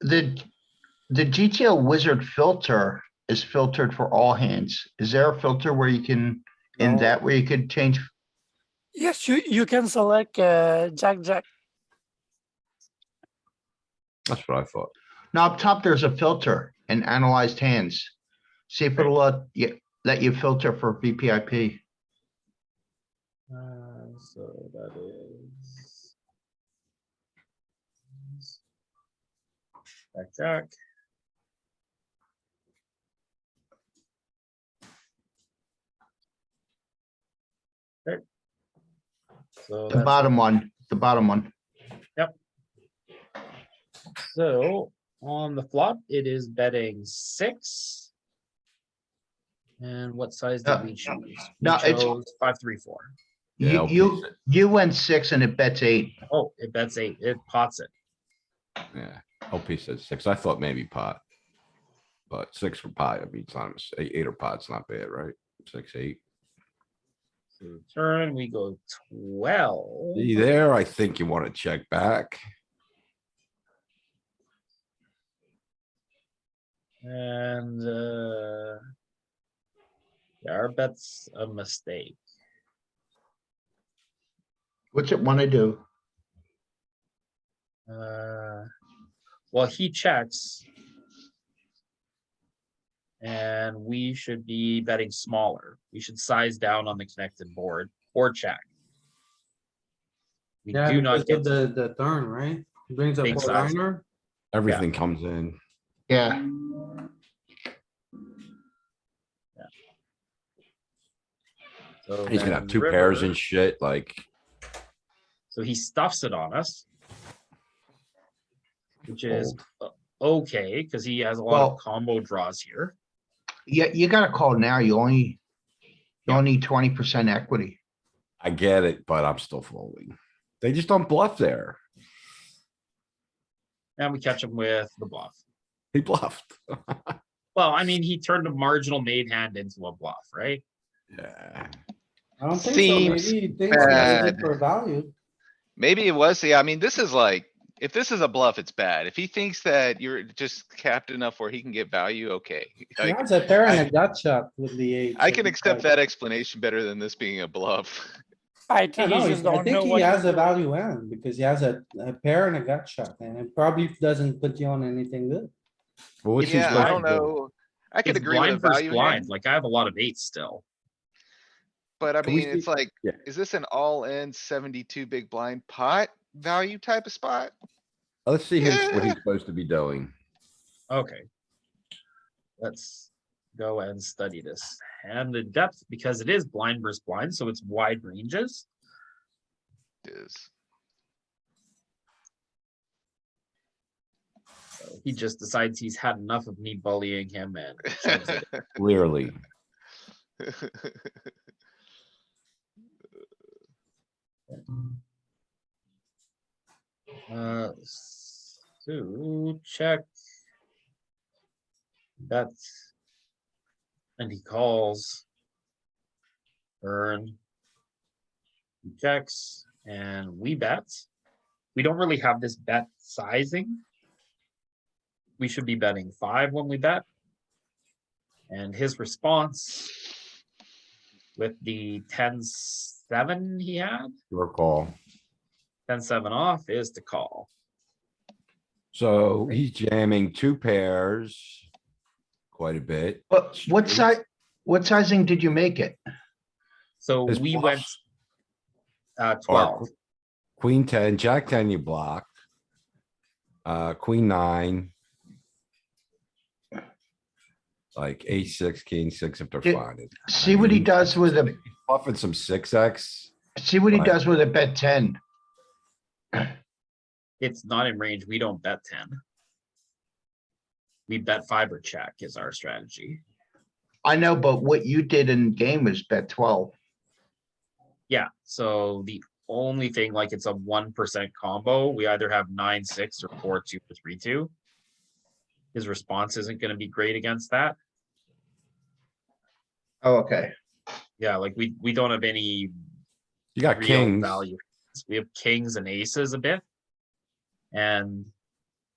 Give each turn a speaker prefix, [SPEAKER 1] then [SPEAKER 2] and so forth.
[SPEAKER 1] The, the GTO wizard filter is filtered for all hands. Is there a filter where you can, in
[SPEAKER 2] No.
[SPEAKER 1] that where you could change?
[SPEAKER 3] Yes, you, you can select uh, Jack Jack.
[SPEAKER 2] That's what I thought.
[SPEAKER 1] No, up top, there's a filter and analyzed hands. See if it'll let you, let you filter for VPIP.
[SPEAKER 4] Uh, so that is. Jack, jack. Okay. So
[SPEAKER 1] The
[SPEAKER 4] that's
[SPEAKER 1] bottom one, the bottom one.
[SPEAKER 4] So on the flop, it is betting six. And what size
[SPEAKER 1] Uh,
[SPEAKER 4] did we choose? We
[SPEAKER 1] no, it's-
[SPEAKER 4] chose Five, three, four.
[SPEAKER 2] Yeah,
[SPEAKER 1] You,
[SPEAKER 2] I'll
[SPEAKER 1] you, you went six and it bets eight.
[SPEAKER 4] Oh, it bets eight. It pots it.
[SPEAKER 2] Yeah, LP said six. I thought maybe pot. But six for pot, I mean, it's not, a mis- eight, eight or pot's not bad, right? Six, eight.
[SPEAKER 4] So Turn, we go twelve.
[SPEAKER 2] See there, I think you wanna check back.
[SPEAKER 4] And, uh. Yeah, our bet's a mistake.
[SPEAKER 1] What's it wanna do?
[SPEAKER 4] Uh, well, he checks. And we should be betting smaller. We should size down on the connected board or check. We
[SPEAKER 5] Yeah,
[SPEAKER 4] do not
[SPEAKER 5] because
[SPEAKER 4] get,
[SPEAKER 5] of the, the turn, right? He Brings up
[SPEAKER 4] Big
[SPEAKER 5] four
[SPEAKER 4] size.
[SPEAKER 5] liner.
[SPEAKER 2] Everything comes in.
[SPEAKER 1] Yeah,
[SPEAKER 4] so
[SPEAKER 2] He's gonna have
[SPEAKER 4] then
[SPEAKER 2] two pairs
[SPEAKER 4] river,
[SPEAKER 2] and shit, like,
[SPEAKER 4] So he stuffs it on us. Which is
[SPEAKER 2] Fold.
[SPEAKER 4] o- okay, because he has a lot
[SPEAKER 1] Well-
[SPEAKER 4] of combo draws here.
[SPEAKER 1] yeah, you gotta call now. You only, you only need twenty percent equity.
[SPEAKER 2] I get it, but I'm still folding. They just don't bluff there.
[SPEAKER 4] And we catch him with the bluff.
[SPEAKER 2] He bluffed.
[SPEAKER 4] Well, I mean, he turned a marginal made hand into a bluff, right?
[SPEAKER 2] Yeah,
[SPEAKER 5] I don't think so.
[SPEAKER 6] Seems
[SPEAKER 5] Maybe he thinks he's gonna
[SPEAKER 6] bad.
[SPEAKER 5] get for value.
[SPEAKER 6] Maybe it was, yeah, I mean, this is like, if this is a bluff, it's bad. If he thinks that you're just capped enough where he can get value, okay.
[SPEAKER 5] He
[SPEAKER 6] Like,
[SPEAKER 5] has a pair and a gut shot with the eight.
[SPEAKER 6] I
[SPEAKER 5] so
[SPEAKER 6] can
[SPEAKER 5] it's
[SPEAKER 6] accept
[SPEAKER 5] like-
[SPEAKER 6] that explanation better than this being a bluff.
[SPEAKER 3] I
[SPEAKER 5] I
[SPEAKER 3] think
[SPEAKER 5] don't
[SPEAKER 3] he
[SPEAKER 5] know,
[SPEAKER 3] just
[SPEAKER 5] I
[SPEAKER 3] don't know
[SPEAKER 5] think he
[SPEAKER 3] what.
[SPEAKER 5] has
[SPEAKER 3] to
[SPEAKER 5] a
[SPEAKER 3] do.
[SPEAKER 5] value hand because he has a, a pair and a gut shot and it probably doesn't put you on anything good.
[SPEAKER 2] But what's he
[SPEAKER 6] Yeah, I don't
[SPEAKER 2] supposed to do?
[SPEAKER 6] know. I could
[SPEAKER 4] It's
[SPEAKER 6] agree with a
[SPEAKER 4] blind versus
[SPEAKER 6] value
[SPEAKER 4] blind,
[SPEAKER 6] hand,
[SPEAKER 4] like I have a lot of eights still.
[SPEAKER 6] but I
[SPEAKER 2] Can we
[SPEAKER 6] mean, it's like,
[SPEAKER 2] Yeah.
[SPEAKER 6] is this an all-in seventy-two big blind pot value type of spot?
[SPEAKER 2] Let's see him- what
[SPEAKER 6] Yeah.
[SPEAKER 2] he's supposed to be doing.
[SPEAKER 4] Okay. Let's go and study this and the depth, because it is blind versus blind, so it's wide ranges.
[SPEAKER 6] Is,
[SPEAKER 4] So He just decides he's had enough of me bullying him and shoves it.
[SPEAKER 2] Clearly,
[SPEAKER 4] Uh, so check. That's. And he calls. Turn. He Checks and we bet. We don't really have this bet sizing. We should be betting five when we bet. And his response. With the ten seven he had,
[SPEAKER 2] your call.
[SPEAKER 4] ten seven off is to call.
[SPEAKER 2] So he's jamming two pairs. Quite a bit.
[SPEAKER 1] But what size, what sizing did you make it?
[SPEAKER 4] So
[SPEAKER 2] His
[SPEAKER 4] we went
[SPEAKER 2] bluffs
[SPEAKER 4] uh,
[SPEAKER 2] are
[SPEAKER 4] twelve.
[SPEAKER 2] qu- Queen ten, jack ten, you block. Uh, queen nine. Like eight, six, king, six, if they're
[SPEAKER 1] Did-
[SPEAKER 2] fine. It's
[SPEAKER 1] See what he
[SPEAKER 2] mean,
[SPEAKER 1] does with a,
[SPEAKER 2] Buffing some six X.
[SPEAKER 1] see what he
[SPEAKER 2] Right.
[SPEAKER 1] does with a bet ten.
[SPEAKER 4] It's not in range. We don't bet ten. We bet five or check is our strategy.
[SPEAKER 1] I know, but what you did in game was bet twelve.
[SPEAKER 4] Yeah, so the only thing like it's a one percent combo, we either have nine, six or four, two or three, two. His response isn't gonna be great against that.
[SPEAKER 1] Oh, okay.
[SPEAKER 4] Yeah, like we, we don't have any
[SPEAKER 2] You got
[SPEAKER 4] real
[SPEAKER 2] kings.
[SPEAKER 4] value. We have kings and aces a bit. And